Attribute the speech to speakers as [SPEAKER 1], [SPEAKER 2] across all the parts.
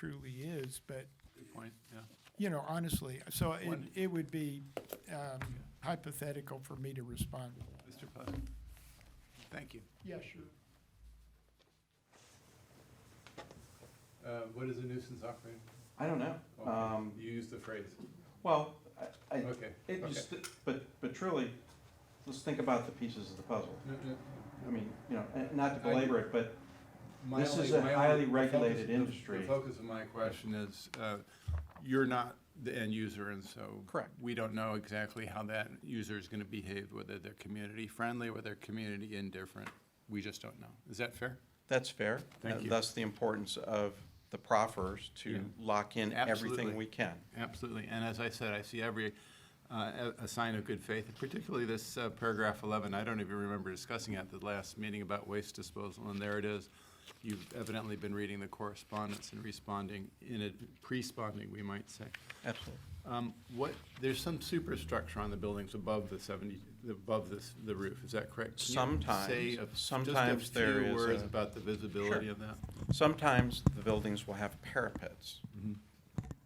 [SPEAKER 1] truly is, but,
[SPEAKER 2] Good point, yeah.
[SPEAKER 1] you know, honestly, so
[SPEAKER 2] One-
[SPEAKER 1] it, it would be um, hypothetical for me to respond.
[SPEAKER 2] Mr. Putt? Thank you.
[SPEAKER 1] Yeah, sure.
[SPEAKER 2] Uh, What is a nuisance operator?
[SPEAKER 3] I don't know.
[SPEAKER 2] Okay,
[SPEAKER 3] Um,
[SPEAKER 2] You used the phrase.
[SPEAKER 3] well, I, I,
[SPEAKER 2] Okay,
[SPEAKER 3] it
[SPEAKER 2] okay.
[SPEAKER 3] just, but, but truly, let's think about the pieces of the puzzle.
[SPEAKER 2] No, no,
[SPEAKER 3] I mean, you know, and not to belabor it, but
[SPEAKER 2] my
[SPEAKER 3] This
[SPEAKER 2] only-
[SPEAKER 3] is a
[SPEAKER 2] my only-
[SPEAKER 3] highly
[SPEAKER 2] the
[SPEAKER 3] regulated
[SPEAKER 2] focus- the-
[SPEAKER 3] industry.
[SPEAKER 2] The focus of my question is, uh, you're not the end user, and so.
[SPEAKER 3] Correct.
[SPEAKER 2] We don't know exactly how that user is going to behave, whether they're community friendly, whether they're community indifferent. We just don't know. Is that fair?
[SPEAKER 3] that's fair.
[SPEAKER 2] Thank
[SPEAKER 3] And
[SPEAKER 2] you.
[SPEAKER 3] Thus the importance of the proffers
[SPEAKER 2] Yeah.
[SPEAKER 3] to lock in
[SPEAKER 2] Absolutely.
[SPEAKER 3] everything we can.
[SPEAKER 2] Absolutely. And as I said, I see every, uh, a a sign of good faith, particularly this uh, paragraph 11. I don't even remember discussing it at the last meeting about waste disposal, and there it is. You've evidently been reading the correspondence and responding, in a, pre-sponding, we might say.
[SPEAKER 3] Absolutely.
[SPEAKER 2] Um, What, there's some superstructure on the buildings above the 70, above this, the roof, is that correct? Can you
[SPEAKER 3] Sometimes.
[SPEAKER 2] say a-
[SPEAKER 3] Sometimes there
[SPEAKER 2] Just a
[SPEAKER 3] is
[SPEAKER 2] few words
[SPEAKER 3] a-
[SPEAKER 2] about the visibility
[SPEAKER 3] Sure.
[SPEAKER 2] of that?
[SPEAKER 3] Sometimes the buildings will have parapets.
[SPEAKER 2] Mm-hmm.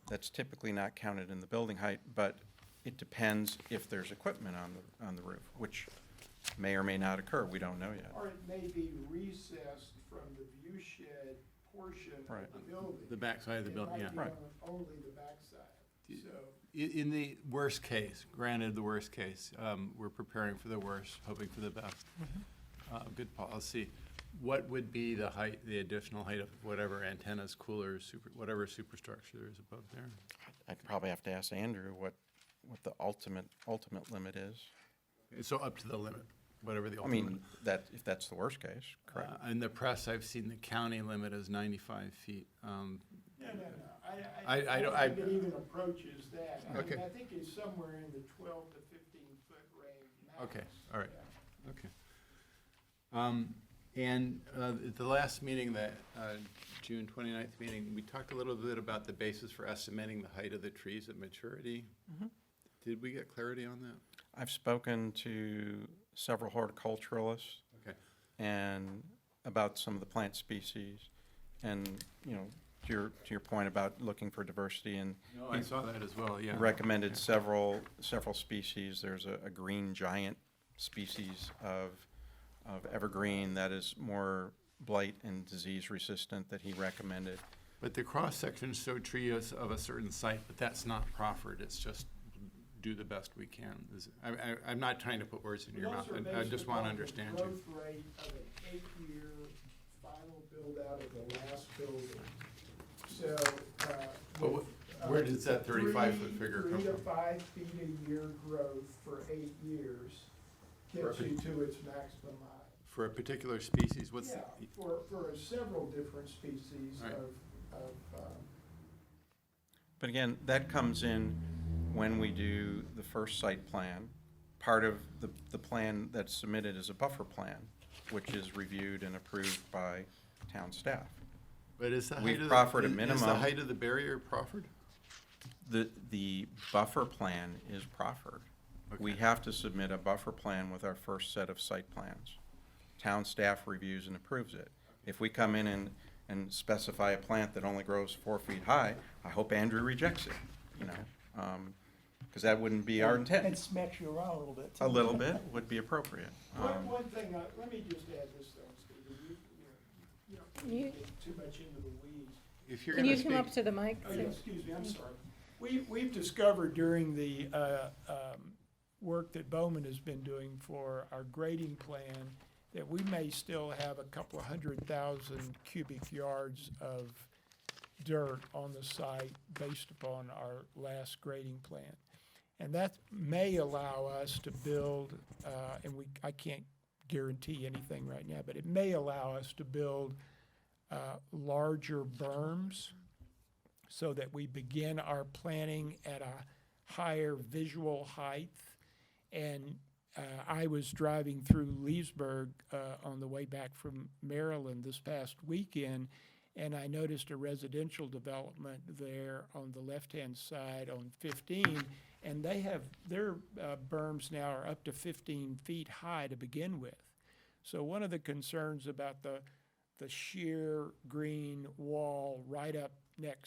[SPEAKER 3] That's typically not counted in the building height, but it depends if there's equipment on the, on the roof, which may or may not occur. We don't know yet.
[SPEAKER 1] Or it may be recessed from the view shed portion of
[SPEAKER 3] Right.
[SPEAKER 1] the building.
[SPEAKER 2] The backside of the building, yeah.
[SPEAKER 1] It might be on only the backside, so.
[SPEAKER 2] I- In the worst case, granted the worst case, um, we're preparing for the worst, hoping for the best. Uh, Good policy. What would be the height, the additional height of whatever antennas, coolers, super- whatever superstructure there is above there?
[SPEAKER 3] I'd probably have to ask Andrew what, what the ultimate, ultimate limit is.
[SPEAKER 2] So up to the limit, whatever the
[SPEAKER 3] I
[SPEAKER 2] ultimate.
[SPEAKER 3] mean, that, if that's the worst case,
[SPEAKER 2] Uh,
[SPEAKER 3] correct?
[SPEAKER 2] In the press, I've seen the county limit is 95 feet. Um,
[SPEAKER 1] No, no, no, I,
[SPEAKER 2] I-
[SPEAKER 1] I,
[SPEAKER 2] I
[SPEAKER 1] I
[SPEAKER 2] don't-
[SPEAKER 1] don't think
[SPEAKER 2] I-
[SPEAKER 1] it even approaches that. I mean,
[SPEAKER 2] Okay.
[SPEAKER 1] I think it's somewhere in the twelve to fifteen foot range max.
[SPEAKER 2] Okay, all right.
[SPEAKER 1] Yeah.
[SPEAKER 2] Okay. Um, And uh, at the last meeting, the uh, June 29th meeting, we talked a little bit about the basis for estimating the height of the trees at maturity. Did we get clarity on that?
[SPEAKER 3] I've spoken to several horticulturalists
[SPEAKER 2] Okay,
[SPEAKER 3] and about some of the plant species and, you know, to your, to your point about looking for diversity and
[SPEAKER 2] no, I
[SPEAKER 3] he
[SPEAKER 2] saw that as well, yeah.
[SPEAKER 3] recommended several, several species. There's a, a green giant species of, of evergreen that is more blight and disease resistant that he recommended.
[SPEAKER 2] But the cross-sections show trees of a certain site, but that's not proffered, it's just do the best we can. Is- I- I- I'm not trying to put words in your
[SPEAKER 1] Those
[SPEAKER 2] mouth,
[SPEAKER 1] are
[SPEAKER 2] I I
[SPEAKER 1] based
[SPEAKER 2] just want to
[SPEAKER 1] upon the
[SPEAKER 2] understand you.
[SPEAKER 1] Growth rate of an eight-year final build-out of the last building. So, uh.
[SPEAKER 2] But
[SPEAKER 1] with,
[SPEAKER 2] wh- where
[SPEAKER 1] uh,
[SPEAKER 2] does that 35 foot
[SPEAKER 1] three-
[SPEAKER 2] figure come
[SPEAKER 1] Three to
[SPEAKER 2] from?
[SPEAKER 1] five feet a year growth for eight years gets you
[SPEAKER 2] Right.
[SPEAKER 1] to its maximum height.
[SPEAKER 2] For a particular species, what's,
[SPEAKER 1] Yeah,
[SPEAKER 2] the-
[SPEAKER 1] for, for several different species
[SPEAKER 2] Right.
[SPEAKER 1] of, of, um,
[SPEAKER 3] But again, that comes in when we do the first site plan. Part of the, the plan that's submitted is a buffer plan, which is reviewed and approved by town staff.
[SPEAKER 2] But is the height
[SPEAKER 3] We've
[SPEAKER 2] of the-
[SPEAKER 3] proffered a
[SPEAKER 2] is- Is the
[SPEAKER 3] minimum.
[SPEAKER 2] height of the barrier proffered?
[SPEAKER 3] The, the buffer plan is proffered. We
[SPEAKER 2] Okay.
[SPEAKER 3] have to submit a buffer plan with our first set of site plans. Town staff reviews and approves it. If we come in and, and specify a plant that only grows four feet high, I hope Andrew rejects it, you know? Because that wouldn't
[SPEAKER 2] E
[SPEAKER 3] be our intent.
[SPEAKER 4] And smacks you around a little bit.
[SPEAKER 3] A little bit would be appropriate.
[SPEAKER 1] One,
[SPEAKER 3] Um,
[SPEAKER 1] one thing, I- let me just add this though, Steve, you, you know, you
[SPEAKER 5] You-
[SPEAKER 1] don't get too much into the weeds.
[SPEAKER 2] If you're
[SPEAKER 5] Can
[SPEAKER 2] going
[SPEAKER 5] you come
[SPEAKER 2] to
[SPEAKER 5] up
[SPEAKER 2] speak,
[SPEAKER 5] to the mic?
[SPEAKER 1] Oh, yeah, excuse me, I'm sorry. We, we've discovered during the uh, um, work that Bowman has been doing for our grading plan that we may still have a couple of hundred thousand cubic yards of dirt on the site based upon our last grading plan. And that may allow us to build, uh, and we, I can't guarantee anything right now, but it may allow us to build uh, larger berms so that we begin our planning at a higher visual height. And uh, I was driving through Leesburg uh, on the way back from Maryland this past weekend, and I noticed a residential development there on the left-hand side on 15, and they have, their uh, berms now are up to 15 feet high to begin with. So one of the concerns about the, the sheer green wall right up next